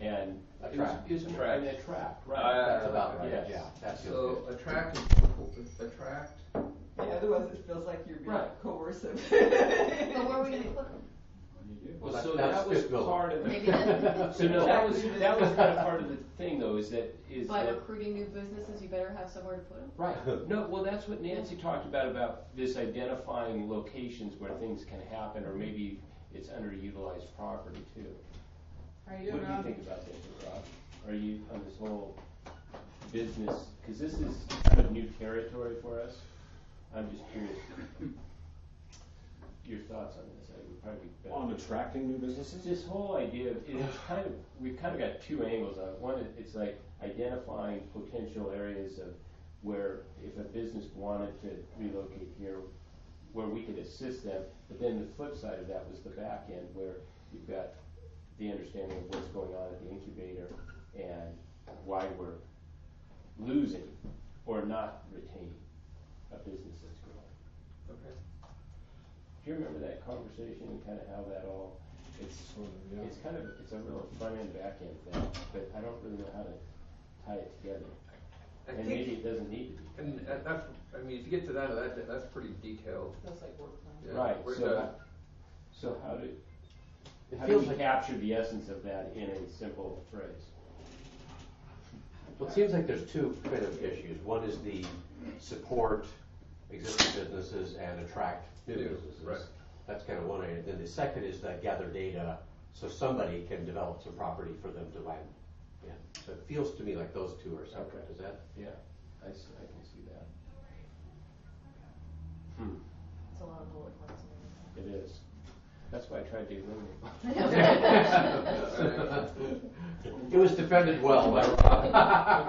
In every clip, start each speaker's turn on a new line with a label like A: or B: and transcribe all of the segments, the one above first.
A: and
B: A
C: Is-
B: track.
C: is-
A: Track.
B: And a track,
A: I-
B: right, that's about right,
A: yes.
B: yeah, that feels
C: So
B: good.
C: attract, attract,
D: Yeah, otherwise it feels like you're being
B: Right.
D: coercive.
E: But where are we gonna put them?
B: Well,
A: That-
B: so
A: that's
B: that was
A: fiscal.
B: part of
E: Maybe that's-
B: the, so no, that was, that was kind of part of the thing though, is that, is
E: By
B: that.
E: recruiting new businesses, you better have somewhere to put them?
B: Right, no, well, that's what Nancy talked about, about this identifying locations where things can happen, or maybe it's underutilized property too.
F: Are you
B: What do you
F: around?
B: think about this, Rob? Are you on this whole business, because this is kind of new territory for us? I'm just curious. Your thoughts on this, I would probably. be better-
G: On attracting new
B: It's
G: businesses?
B: This whole idea of, and it's kind of, we've kind of got two angles on it. One, it- it's like identifying potential areas of where if a business wanted to relocate here, where we could assist them. But then the flip side of that was the back end where you've got the understanding of what's going on at the incubator and why we're losing or not retaining a business that's growing.
C: okay.
B: Do you remember that conversation and kind of how that all, it's
G: Sort of, yeah.
B: it's kind of, it's a real front end, back end thing, but I don't really know how to tie it together.
C: I
B: And
C: think-
B: maybe it doesn't need to be.
C: And that- that's, I mean, if you get to that, that, that's pretty detailed.
F: Feels like work time.
C: Yeah,
B: Right,
C: we're
B: so,
C: done.
B: how- so how do,
A: it
B: how do
A: feels
B: you
A: like,
B: capture the essence of that in a simple phrase?
A: well, it seems like there's two kind of issues. One is the support existing businesses and attract new
C: New,
A: businesses.
C: right.
A: That's kind of one idea. Then the second is that gather data so somebody can develop some property for them to land. Yeah, so it feels to me like those two are separate.
B: Okay.
A: Is that?
B: Yeah, I s- I can see that. Hmm,
E: It's a lot of bullet points.
B: it is. That's why I tried to eliminate.
A: It was defended well by Rob.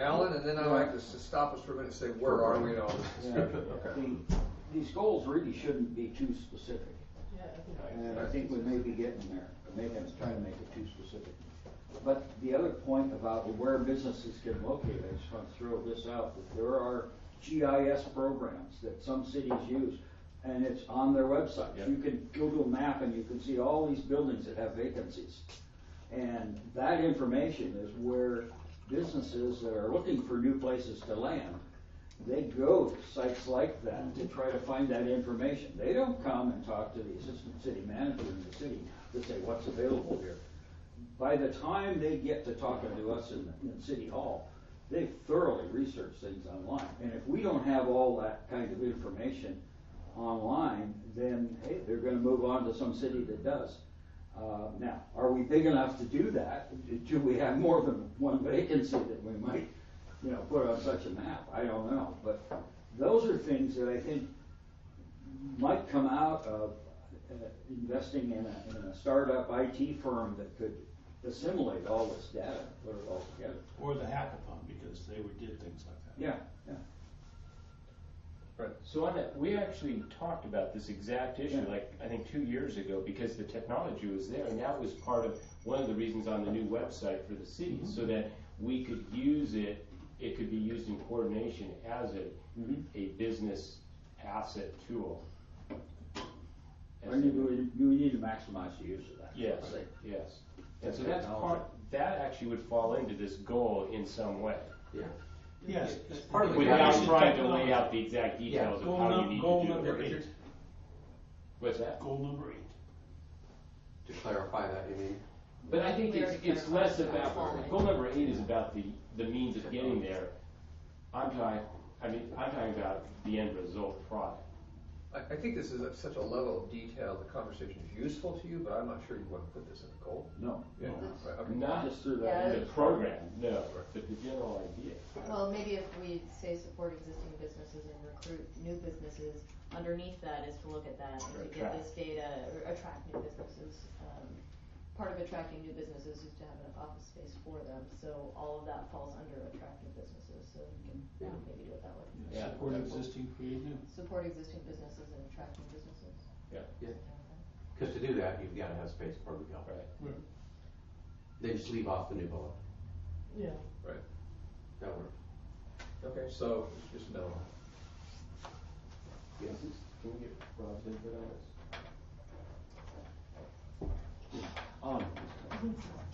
C: Alan, and then I'd like to s- stop us for a minute and say, where are we in all this discussion?
H: These goals really shouldn't be too specific,
F: Yeah, I think-
H: and I think we may be getting there, maybe I'm trying to make it too specific. But the other point about where businesses can locate, I just want to throw this out, that there are GIS programs that some cities use, and it's on their website.
B: Yeah.
H: You can Google map and you can see all these buildings that have vacancies. And that information is where businesses that are looking for new places to land, they go to sites like that to try to find that information. They don't come and talk to the assistant city manager in the city to say what's available here. By the time they get to talking to us in, in City Hall, they've thoroughly researched things online. And if we don't have all that kind of information online, then, hey, they're gonna move on to some city that does. Uh, now, are we big enough to do that? Do we have more than one vacancy that we might, you know, put on such a map? I don't know, but those are things that I think might come out of uh, investing in a, in a startup IT firm that could assimilate all this data, put it all together.
I: Or the hackathon, because they would did things like that.
H: Yeah, yeah.
B: So on that, we actually talked about this exact issue,
H: Yeah.
B: like, I think two years ago, because the technology was there, and that was part of, one of the reasons on the new website for the city, so that we could use it, it could be used in coordination as a,
H: Mhm.
B: a business asset tool.
H: I think we, we need to maximize the use of that.
B: Yes,
H: I think.
B: yes. And so
H: That
B: that's
H: technology.
B: part, that actually would fall into this goal in some way,
A: Yeah.
I: Yes.
A: It's part of the
B: without
A: Use
B: trying to lay out the exact
A: Yeah.
B: details of
I: Goal
B: how you
I: num-
B: need
I: goal
B: to do it.
I: number
C: Yeah,
I: eight,
C: but
B: What's that?
I: goal number eight.
A: To clarify that, you mean?
B: But I think it's, it's less about, goal number eight is about the, the means of getting there. I'm talking, I mean, I'm talking about the end result product.
C: I, I think this is at such a level of detail, the conversation is useful to you, but I'm not sure you want to put this in a goal.
H: No,
C: Yeah. Right, okay.
B: Not
H: just through that.
B: the program, no, but the general idea.
E: Well, maybe if we say support existing businesses and recruit new businesses, underneath that is to look at that
B: Or
E: and
B: attract.
E: to get this data, or attract new businesses. Um, Part of attracting new businesses is to have enough office space for them, so all of that falls under attract new businesses, so we can
A: Yeah.
E: maybe do it that way.
B: Yeah.
I: Support existing, create new.
E: Support existing businesses and attract new businesses.
B: Yeah.
A: Yeah. Because to do that, you've got to have space for Miguel.
B: Right.
I: Right.
A: They just leave off the new bullet.
F: Yeah.
A: That works.
C: Okay, so just no.
A: Yes.
B: Can we get Rob's input on this?
H: Um,